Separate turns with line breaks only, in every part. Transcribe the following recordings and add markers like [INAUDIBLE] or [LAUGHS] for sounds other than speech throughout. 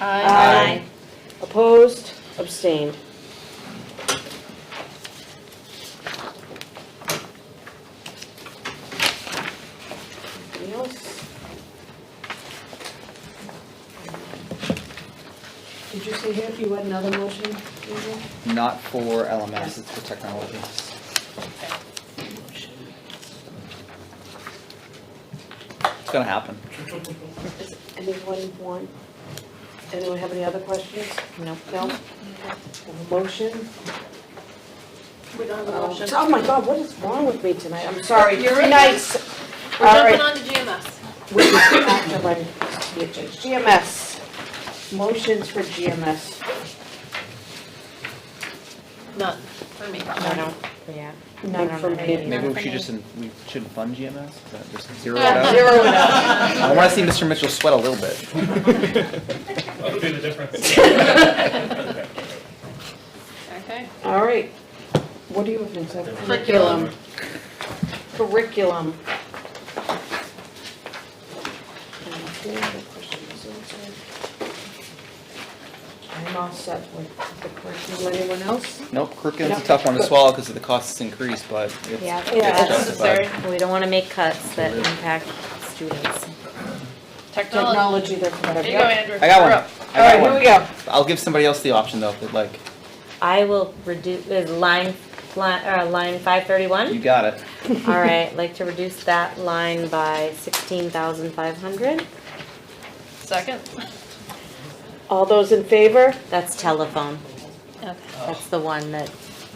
Aye.
Opposed, abstained. Anything else?
Did you say here you had another motion? Susan?
Not for LMS, it's for technology. It's gonna happen.
Does anyone want, anyone have any other questions? No. No? Motion?
We don't have a
Um,
motion.
Oh my God, what is wrong with me tonight? I'm sorry.
You're in.
Nice.
We're
All
jumping
right.
on to GMS.
We have to run GMS. Motions for GMS.
None, for me.
No, no, yeah.
None for me.
Maybe we
for
should
me.
just, we shouldn't fund GMS, but uh, just zero it out.
Zero it out.
I wanna see Mr. Mitchell sweat a little bit.
I'll do the difference.
Okay.
All right. What do you have in second?
Curriculum.
Curriculum. And I think the question is answered. I'm all set with the curriculum. Anyone else?
Nope, curriculum's a tough one to swallow because of the costs increase, but it's
Yeah.
it's
Yeah, it's
justified.
We don't want to make cuts that impact students.
Technology, that's what I've
There you go, Andrew.
I got
You're
one,
up.
I
All right,
got
here we
one.
go.
I'll give somebody else the option though, if they'd like.
I will reduce, is line, line, uh, line five
[LAUGHS]
You
thirty-one?
got it.
All right, like to reduce that line by sixteen thousand five hundred.
Second.
All those in favor?
That's telephone.
Okay.
That's the one that,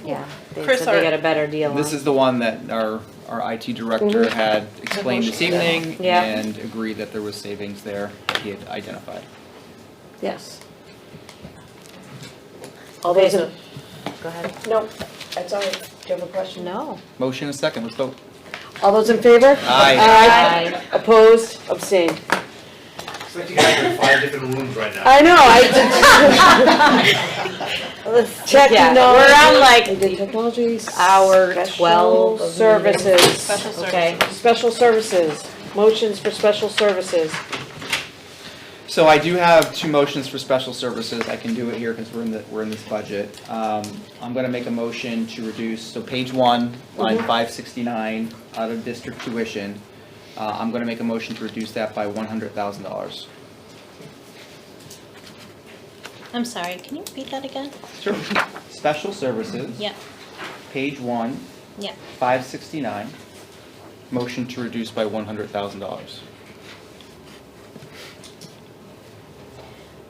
yeah, they
Chris,
said they
are-
got a better deal on.
This is the one that our, our IT director
Mhm.
had explained this evening
Yeah.
and agreed that there was savings there that he had identified.
Yes. All those in,
Go ahead.
no, that's all right. Do you have a question? No.
Motion and second, let's vote.
All those in favor?
Aye.
Aye. Opposed, abstained.
It's like you guys are in five different rooms right now.
I know, I
Let's
Oh,
did, check,
Yeah,
no.
We're on
I
like
did technologies.
hour
special
twelve. of meeting.
Services,
Special
Okay.
services.
special services, motions for special services.
So I do have two motions for special services. I can do it here because we're in the, we're in this budget. Um, I'm gonna make a motion to reduce, so page one, line five sixty-nine, out of district tuition. Uh, I'm gonna make a motion to reduce that by one hundred thousand dollars.
I'm sorry, can you repeat that again?
Sure. Special services.
Yeah,
Page one,
yeah.
five sixty-nine, motion to reduce by one hundred thousand dollars.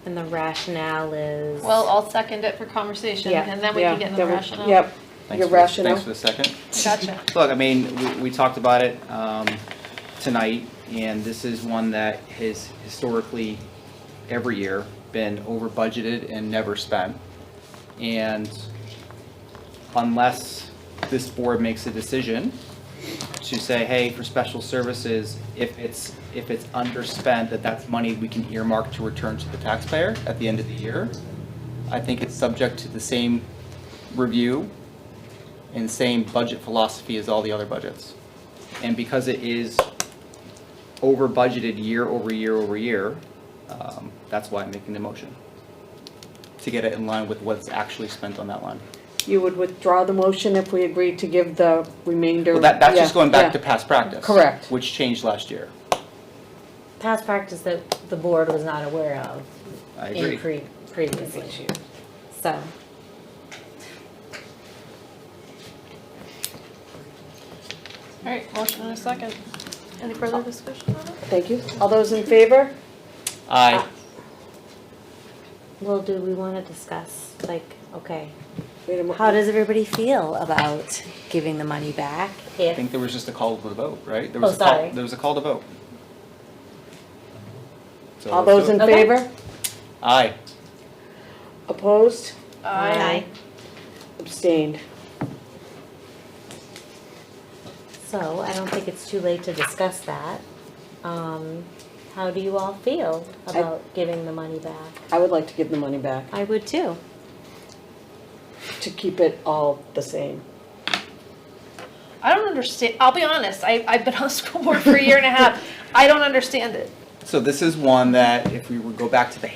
And the rationale is.
Well, I'll second it for conversation,
Yeah,
and then we
Yeah,
can get in the
that would-
rationale.
Yep,
Thanks
Your
for the-
rationale.
Thanks for the second.
Gotcha.
Look, I mean, we, we talked about it, um, tonight, and this is one that has historically, every year, been over budgeted and never spent. And unless this board makes a decision to say, hey, for special services, if it's, if it's underspent, that that's money we can earmark to return to the taxpayer at the end of the year. I think it's subject to the same review and same budget philosophy as all the other budgets. And because it is over budgeted year over year over year, um, that's why I'm making the motion. To get it in line with what's actually spent on that line.
you would withdraw the motion if we agreed to give the remainder.
Well, that, that's just
Yeah,
going back
yeah.
to past practice.
Correct.
Which changed last year.
past practice that the board was not aware of
I
in
agree.
pre- previous issue. So,
All right, motion and a second. Any further discussion on it?
Thank you. All those in favor?
I,
well, do we want to discuss, like, okay,
Wait a mo-
how does everybody feel about giving the money back?
Ah.
I
If,
think there was just a call to the vote, right? There
Oh,
was a call-
sorry.
There was a call to vote. So
All
let's
those
do
in
it.
Okay.
favor?
Aye.
Opposed?
Aye.
Abstained.
so I don't think it's too late to discuss that. Um, how do you all feel about giving the money back?
I would like to give the money back,
I would too.
to keep it all the same.
I don't understand, I'll be honest, I, I've been on the school board for a year and a half. I don't understand it.
So this is one that if we would go back to the